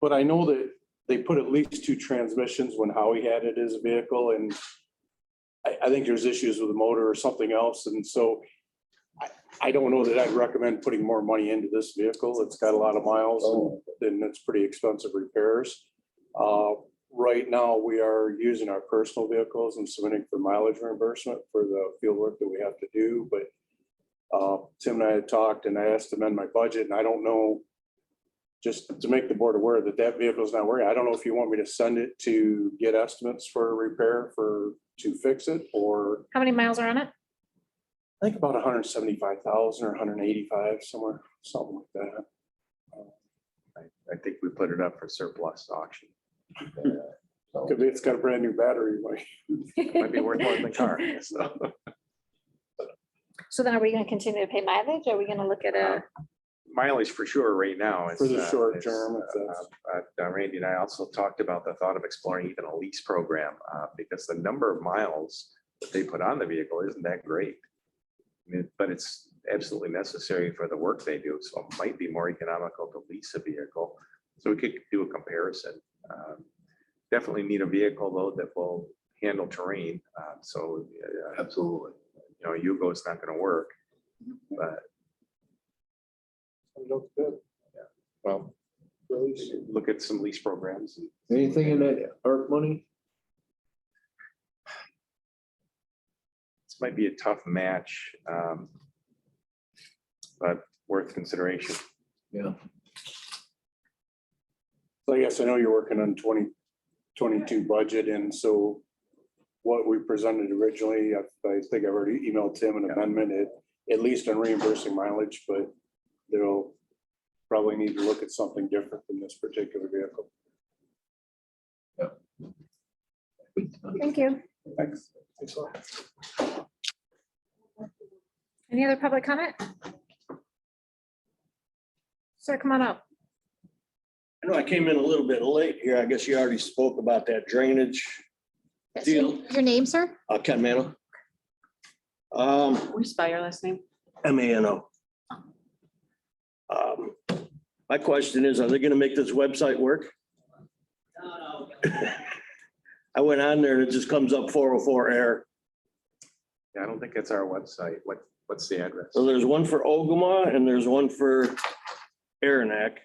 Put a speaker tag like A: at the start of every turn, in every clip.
A: But I know that they put at least two transmissions when Howie had it as a vehicle and I, I think there's issues with the motor or something else. And so I, I don't know that I'd recommend putting more money into this vehicle. It's got a lot of miles and then it's pretty expensive repairs. Uh, Right now, we are using our personal vehicles and submitting for mileage reimbursement for the field work that we have to do, but uh, Tim and I had talked and I asked to amend my budget and I don't know, just to make the board aware that that vehicle is not working. I don't know if you want me to send it to get estimates for repair for, to fix it or
B: How many miles are on it?
A: I think about hundred and seventy-five thousand or hundred and eighty-five somewhere, something like that.
C: I think we put it up for surplus auction.
A: Could be it's got a brand new battery. like-
C: Might be worth more than the car. so.
B: So then are we gonna continue to pay mileage? Are we gonna look at a,
C: Mileage for sure right now. it's,
A: For the
C: uh,
A: short
C: it's,
A: term, if
C: uh,
A: that's-
C: uh, uh, Randy and I also talked about the thought of exploring even a lease program, uh, because the number of miles that they put on the vehicle isn't that great. I mean, But it's absolutely necessary for the work they do, so it might be more economical to lease a vehicle. So we could do a comparison. Um, Definitely need a vehicle though that will handle terrain, uh, so. Absolutely. You know, Yugo's not gonna work, but
A: It looks good.
C: well,
A: Really.
C: look at some lease programs. and-
D: Anything in that ARP money?
C: This might be a tough match. um, But worth consideration.
D: Yeah.
A: So I guess I know you're working on twenty twenty-two budget, and so what we presented originally, I I think I already emailed Tim an amendment, at- at least on reimbursing mileage, but they'll probably need to look at something different than this particular vehicle.
B: thank you.
A: Thanks. Thanks a lot.
B: Any other public comment? Sir, come on up.
E: I know I came in a little bit late here. I guess you already spoke about that drainage,
B: Yes, your-
E: Deal.
B: Your name, sir?
E: uh, Ken Mano. Um,
F: We spell your last name?
E: M A N O. Um, my question is, are they gonna make this website work? I went on there and it just comes up four oh four error.
C: Yeah, I don't think it's our website. What, what's the address?
E: So there's one for Ogama and there's one for Aranac.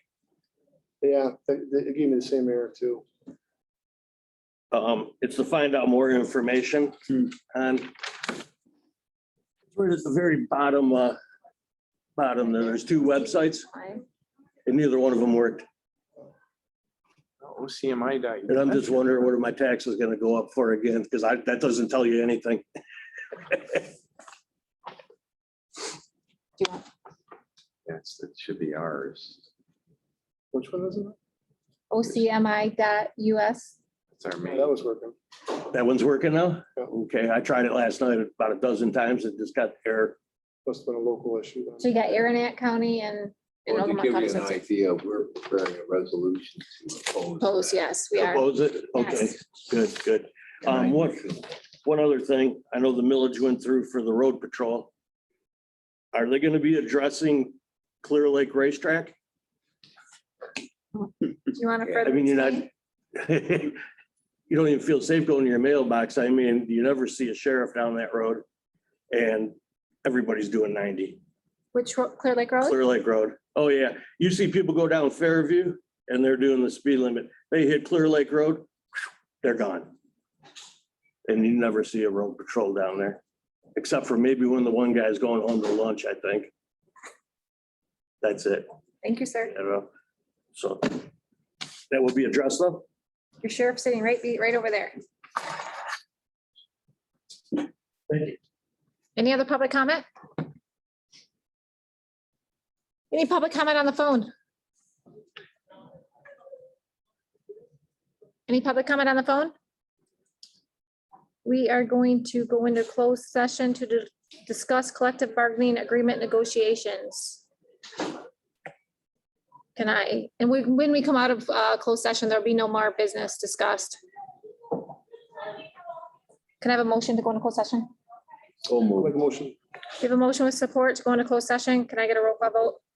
G: Yeah, they, they gave me the same error too.
E: Um, it's to find out more information
G: Hmm.
E: on. Right at the very bottom, uh, bottom, there, there's two websites and neither one of them worked.
C: OCMI. dot
E: And I'm just wondering, what are my taxes gonna go up for again? Because I, that doesn't tell you anything.
C: Yes, it should be ours.
G: Which one is it?
B: OCMI dot US.
C: It's our
G: That
C: main.
G: was working.
E: That one's working now?
G: Yeah.
E: Okay, I tried it last night about a dozen times. It just got error.
G: Must have been a local issue. then.
B: So you got Aranac County and. and
D: Or to
B: Ogama
D: give you
B: County
D: an
B: System.
D: idea, we're preparing a resolution to oppose.
B: Close,
D: that.
B: yes, we are.
E: Oppose it? Okay,
B: Yes.
E: good, good. Um, what, one other thing, I know the millage went through for the road patrol. Are they gonna be addressing Clear Lake Racetrack?
B: Do you want to
E: I
B: further?
E: mean, you're not.
B: explain?
E: You don't even feel safe going to your mailbox. I mean, you never see a sheriff down that road. And everybody's doing ninety.
B: Which, ro- Clear Lake Road?
E: Clear Lake Road. Oh, yeah. You see people go down Fairview and they're doing the speed limit. They hit Clear Lake Road, they're gone. And you never see a road patrol down there, except for maybe when the one guy's going home to lunch, I think. That's it,
B: Thank you, sir.
E: you know? So that will be addressed though.
B: Your sheriff's sitting right, be- right over there.
E: Thank you.
B: Any other public comment? Any public comment on the phone? Any public comment on the phone? We are going to go into closed session to di- discuss collective bargaining agreement negotiations. Can I, and we- when we come out of uh, closed session, there'll be no more business discussed. Can I have a motion to go into closed session?
D: So moved.
G: Like motion.
B: We have a motion with support to go into closed session. Can I get a roll call vote?